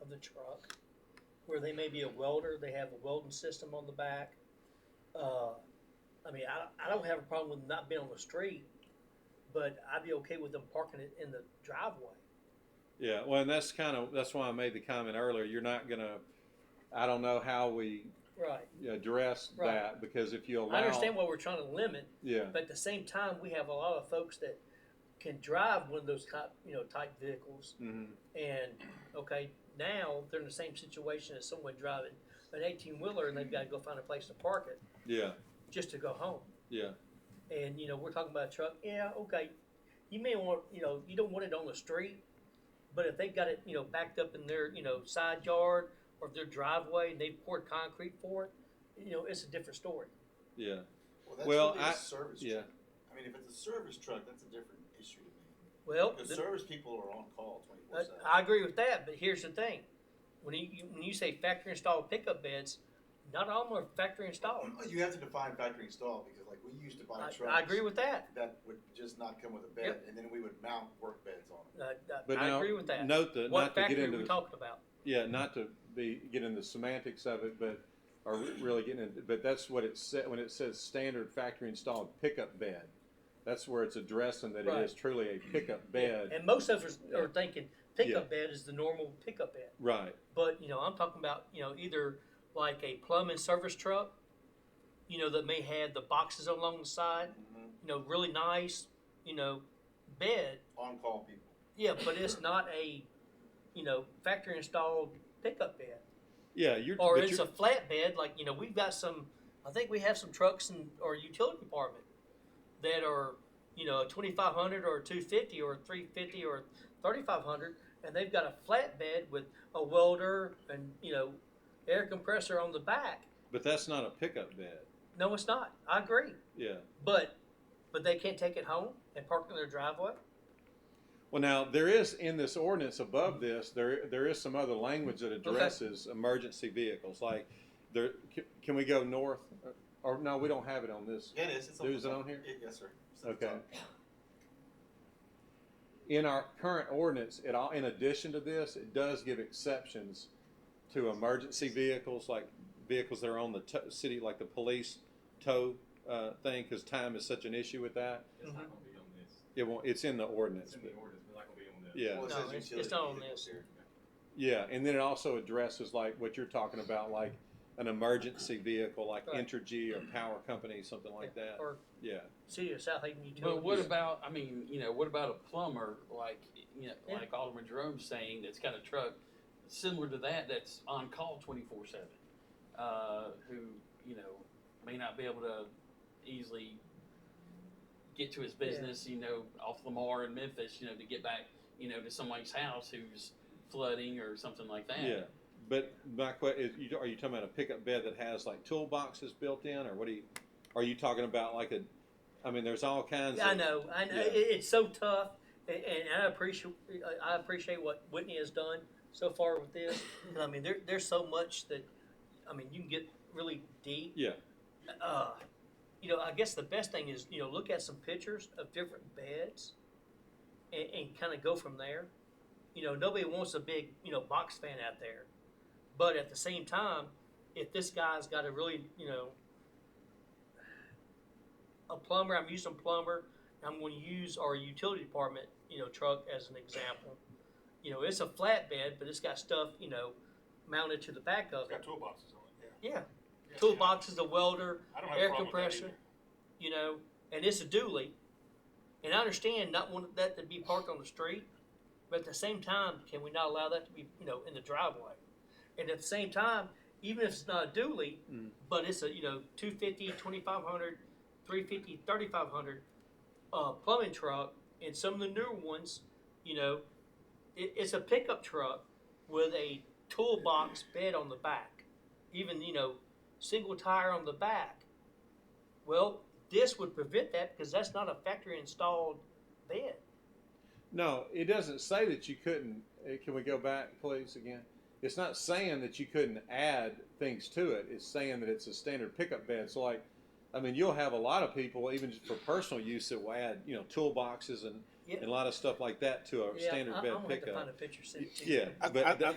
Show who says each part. Speaker 1: of the truck, where they may be a welder, they have a welding system on the back. Uh, I mean, I, I don't have a problem with them not being on the street, but I'd be okay with them parking it in the driveway.
Speaker 2: Yeah, well, and that's kind of, that's why I made the comment earlier, you're not gonna, I don't know how we
Speaker 1: Right.
Speaker 2: address
Speaker 1: Right.
Speaker 2: that, because if you allow.
Speaker 1: I understand what we're trying to limit,
Speaker 2: Yeah,
Speaker 1: but at the same time, we have a lot of folks that can drive one of those type, you know, type vehicles.
Speaker 2: hmm
Speaker 1: And okay, now they're in the same situation as someone driving an eighteen wheeler and they've got to go find a place to park it
Speaker 2: yeah,
Speaker 1: just to go home.
Speaker 2: yeah,
Speaker 1: And you know, we're talking about a truck. Yeah, okay. You may want, you know, you don't want it on the street, but if they've got it, you know, backed up in their, you know, side yard or their driveway and they poured concrete for it, you know, it's a different story.
Speaker 2: yeah,
Speaker 3: Well, that's
Speaker 2: Well,
Speaker 3: really a
Speaker 2: I-
Speaker 3: service
Speaker 2: yeah,
Speaker 3: truck. I mean, if it's a service truck, that's a different issue to me.
Speaker 1: Well,
Speaker 3: Because
Speaker 1: the-
Speaker 3: service people are on call twenty four
Speaker 1: Uh,
Speaker 3: seven.
Speaker 1: I agree with that, but here's the thing: when you, you when you say factory installed pickup beds, not all of them are factory installed.
Speaker 3: Oh, You have to define factory install because, like, we used to buy
Speaker 1: I,
Speaker 3: trucks
Speaker 1: I agree with that.
Speaker 3: that would just not come with a bed,
Speaker 1: Yep.
Speaker 3: and then we would mount work beds on them.
Speaker 1: Uh, I-
Speaker 2: but
Speaker 1: I
Speaker 2: now,
Speaker 1: agree with that.
Speaker 2: note that,
Speaker 1: what
Speaker 2: not to get
Speaker 1: factory are we
Speaker 2: into,
Speaker 1: talking about?
Speaker 2: yeah, not to be, get into the semantics of it, but, or really getting into, but that's what it said, when it says standard factory installed pickup bed. That's where it's addressing that it
Speaker 1: Right.
Speaker 2: is truly a pickup bed,
Speaker 1: And most of us are thinking pickup bed is the normal pickup bed,
Speaker 2: right,
Speaker 1: but you know I'm talking about you know either like a plumbing service truck, you know that may have the boxes along the side,
Speaker 3: Mhm.
Speaker 1: you know really nice, you know bed,
Speaker 3: On call people.
Speaker 1: yeah, but it's not a you know factory installed pickup bed.
Speaker 2: yeah, you're.
Speaker 1: or
Speaker 2: but
Speaker 1: it's
Speaker 2: you're-
Speaker 1: a flatbed. Like you know, we've got some. I think we have some trucks in our utility department that are you know twenty five hundred or two fifty or three fifty or thirty five hundred, and they've got a flatbed with a welder and you know air compressor on the back.
Speaker 2: But that's not a pickup bed,
Speaker 1: No, it's not. I agree,
Speaker 2: yeah.
Speaker 1: but but they can't take it home and park it in their driveway.
Speaker 2: Well, now there is in this ordinance above this, there there is some other language that addresses emergency vehicles. Like, there can, can we go north? Or no, we don't have it on this.
Speaker 3: Yeah, it is. It's
Speaker 2: Dude's
Speaker 3: the
Speaker 2: on
Speaker 3: top.
Speaker 2: here?
Speaker 3: Yeah, yes, sir. It's on the
Speaker 2: Okay.
Speaker 3: top.
Speaker 2: In our current ordinance, it all in addition to this, it does give exceptions to emergency vehicles, like vehicles that are on the to- city, like the police tow uh, thing, because time is such an issue with that.
Speaker 4: It's not gonna be on this.
Speaker 2: It won't. It's in the ordinance.
Speaker 4: It's in
Speaker 2: but-
Speaker 4: the ordinance, but it's not gonna be on this.
Speaker 2: Yeah.
Speaker 3: Well, it
Speaker 1: No,
Speaker 3: says
Speaker 1: it's- it's
Speaker 3: utility
Speaker 1: not on
Speaker 3: vehicles
Speaker 1: this.
Speaker 3: here.
Speaker 2: Yeah, and then it also addresses like what you're talking about, like an emergency vehicle, like
Speaker 1: Right.
Speaker 2: Entergy or Power Company, something like that.
Speaker 1: Or
Speaker 2: Yeah,
Speaker 1: City of South Haven Utilities.
Speaker 5: But what about, I mean, you know, what about a plumber like, you know,
Speaker 1: Yeah.
Speaker 5: like Alderman Jerome's saying that's got a truck similar to that that's on call twenty four seven, uh, who you know may not be able to easily get to his business, you know, off Lamar in Memphis, you know, to get back, you know, to somebody's house who's flooding or something like that.
Speaker 2: yeah. But my question is, you, are you talking about a pickup bed that has like toolboxes built in, or what do you? Are you talking about like a? I mean, there's all kinds.
Speaker 1: I
Speaker 2: of,
Speaker 1: know, I know.
Speaker 2: Yeah.
Speaker 1: It, it's so tough, and, and I appreciate I appreciate what Whitney has done so far with this. And I mean, there, there's so much that I mean you can get really deep.
Speaker 2: Yeah.
Speaker 1: Uh, you know, I guess the best thing is you know look at some pictures of different beds, and, and kind of go from there. You know, nobody wants a big you know box fan out there, but at the same time, if this guy's got a really you know a plumber, I'm using plumber. I'm going to use our utility department, you know, truck as an example. You know, it's a flatbed, but it's got stuff, you know, mounted to the back of
Speaker 6: It's got
Speaker 1: it.
Speaker 6: toolboxes on it,
Speaker 1: Yeah,
Speaker 6: yeah.
Speaker 1: toolboxes, a welder,
Speaker 6: I don't have
Speaker 1: air
Speaker 6: a problem with that
Speaker 1: compressor.
Speaker 6: either.
Speaker 1: you know, and it's a dually. And I understand not wanting that to be parked on the street, but at the same time, can we not allow that to be, you know, in the driveway? And at the same time, even if it's not a dually,
Speaker 2: Mm.
Speaker 1: but it's a, you know, 250, 2500, 350, 3500 uh, plumbing truck, and some of the newer ones, you know, it, it's a pickup truck with a toolbox bed on the back, even, you know, single tire on the back. Well, this would prevent that because that's not a factory installed bed.
Speaker 2: No, it doesn't say that you couldn't. eh, Can we go back, please, again? It's not saying that you couldn't add things to it. It's saying that it's a standard pickup bed. So, like, I mean, you'll have a lot of people, even just for personal use, that will add, you know, toolboxes and,
Speaker 1: Yeah.
Speaker 2: and a lot of stuff like that to a standard
Speaker 1: I,
Speaker 2: bed
Speaker 1: am gonna have to
Speaker 2: pickup.
Speaker 1: find a picture. send it to you.
Speaker 2: yeah, but
Speaker 7: I- I-